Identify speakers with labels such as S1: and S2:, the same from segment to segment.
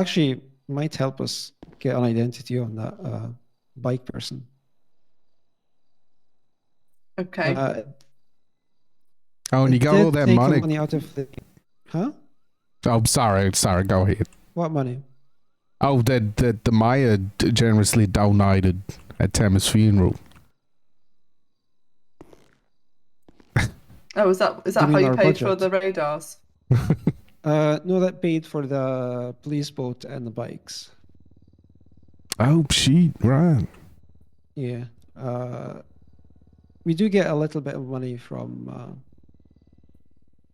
S1: actually might help us get an identity on that uh, bike person.
S2: Okay.
S1: Uh,
S3: Oh, and
S1: it
S3: you got
S1: did
S3: all that
S1: take
S3: money.
S1: money out of the, huh?
S3: Oh, sorry, sorry. Go ahead.
S1: What money?
S3: Oh, that that the mayor d- generously donated at Tam's funeral.
S2: oh, is that is that
S1: you
S2: how
S1: mean
S2: you
S1: our
S2: paid for
S1: budget?
S2: the radars?
S1: Uh, no, that paid for the police boat and the bikes.
S3: Oh, shit! Right.
S1: Yeah. Uh, we do get a little bit of money from, uh,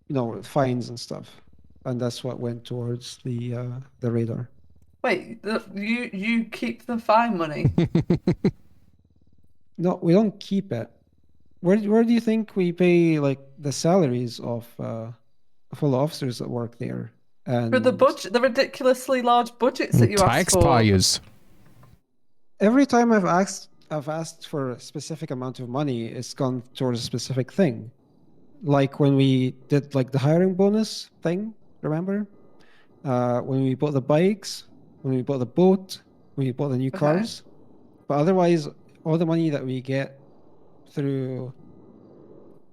S1: you know, fines and stuff, and that's what went towards the uh, the radar.
S2: Wait, the, you you keep the fine money?
S1: No, we don't keep it. Where do- where do you think we pay like the salaries of uh, of all the officers that work there? And
S2: for the budget, the ridiculously large budgets that you asked for.
S3: Taxpayers.
S1: every time I've asked I've asked for a specific amount of money, it's gone towards a specific thing. Like when we did like the hiring bonus thing, remember? Uh, when we bought the bikes, when we bought the boat, when we bought the new
S2: Okay.
S1: cars. But otherwise, all the money that we get through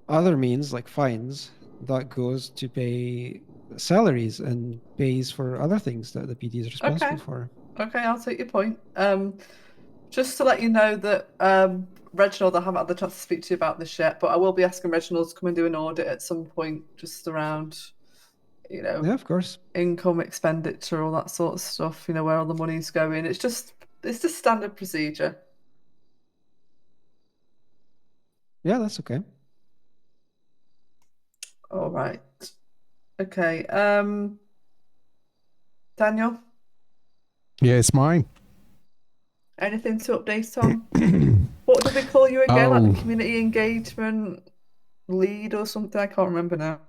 S1: other means like fines, that goes to pay salaries and pays for other things that the PD is responsible for.
S2: Okay, I'll take your point. Um, just to let you know that um, Reginald, I haven't had the chance to speak to you about this yet, but I will be asking Reginald to come and do an audit at some point, just around, you know,
S1: Yeah, of course.
S2: income expenditure, all that sort of stuff. You know, where all the money's going. It's just it's just standard procedure.
S1: Yeah, that's okay.
S2: All right. Okay. Um, Daniel,
S3: Yeah, it's mine.
S2: anything to update on? what did we call you again? Like
S3: Oh.
S2: the community engagement lead or something? I can't remember now.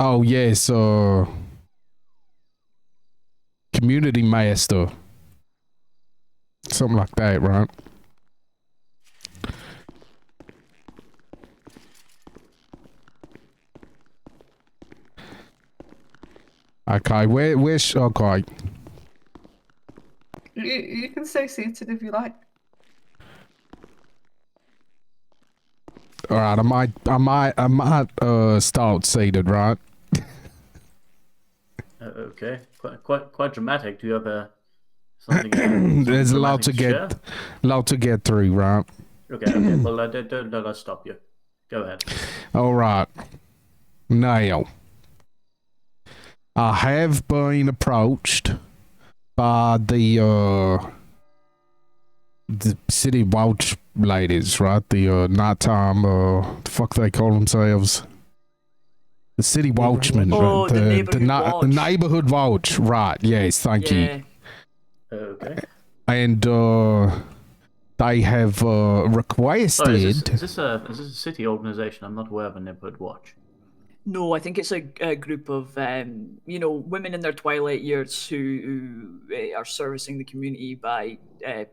S3: Oh yes, uh, community master, something like that, right? Okay, where, where, sh- okay,
S2: You, you can stay seated if you like.
S3: all right. I might, I might, I might, uh, start seated, right?
S4: Uh, okay, quite quite quite dramatic. Do you have a something?
S3: There's a lot to
S4: something
S3: get, lot to get through, right?
S4: dramatic to share? Okay, okay. well, I don't, don't let us stop you. Go ahead.
S3: All right. Now, I have been approached by the uh, the city watch ladies, right? The uh, nighttime, uh, the fuck they call themselves, the city
S1: Neighborhood
S3: watchmen,
S1: watch.
S5: Oh,
S3: right?
S5: the
S3: the,
S5: neighborhood
S3: ni- the
S5: watch.
S3: neighborhood watch, right? Yes, thank you
S5: Yeah.
S4: Uh, Okay. Oh,
S3: and uh, they have uh, requested.
S4: Oh, is, this, is this a is this a city organization? I'm not aware of a neighborhood watch.
S5: No, I think it's a, a group of um, you know women in their twilight years who, who uh, are servicing the community by uh,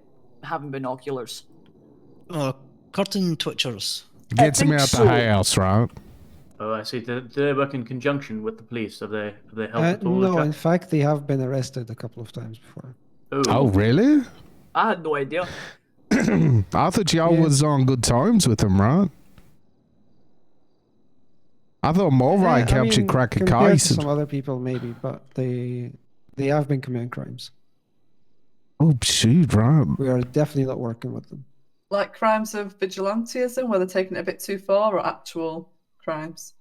S5: having binoculars.
S6: Uh, curtain twitchers.
S3: Gets them
S5: think
S3: out
S5: so.
S3: the house, right?
S4: Oh, I see. Do, do they work in conjunction with the police? Have they have they helped
S1: Uh,
S4: at all?
S1: no,
S4: Jack?
S1: in fact, they have been arrested a couple of times before.
S3: Oh, really?
S5: I had no idea.
S3: I thought y'all
S1: Yeah.
S3: was on good times with them, right? I thought Mulroy
S1: Yeah, I
S3: helped you
S1: mean,
S3: crack a
S1: compared to
S3: case.
S1: Some other people, maybe, but they they have been committing crimes.
S3: Oh, shoot, right.
S1: We are definitely not working with them.
S2: Like crimes of vigilantism, where they're taking it a bit too far, or actual crimes.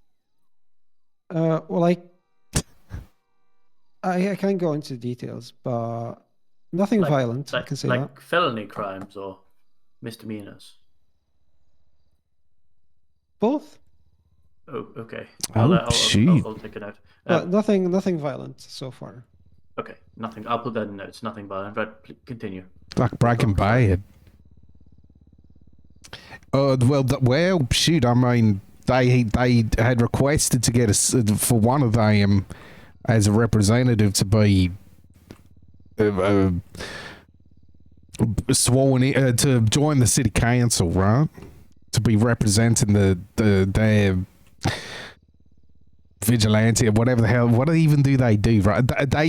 S1: Uh, well, I, I I can't go into details, but nothing
S4: Like-
S1: violent. I
S4: like,
S1: can say
S4: like
S1: that.
S4: felony crimes or misdemeanors.
S1: Both,
S4: Oh, okay.
S3: Oh,
S4: I'll, I'll, I'll,
S3: shoot.
S4: I'll, take a note.
S1: but
S4: Um,
S1: nothing nothing violent so far.
S4: okay, nothing. I'll put that in notes. Nothing violent. Right, pl- continue.
S3: Like Breaking Bad. Uh, well, th- well, shoot. I mean, they they had requested to get a s for one of them as a representative to be uh, uh, sworn in, uh, to join the city council, right? To be representing the the their vigilante or whatever the hell. What even do they do? Right? They- They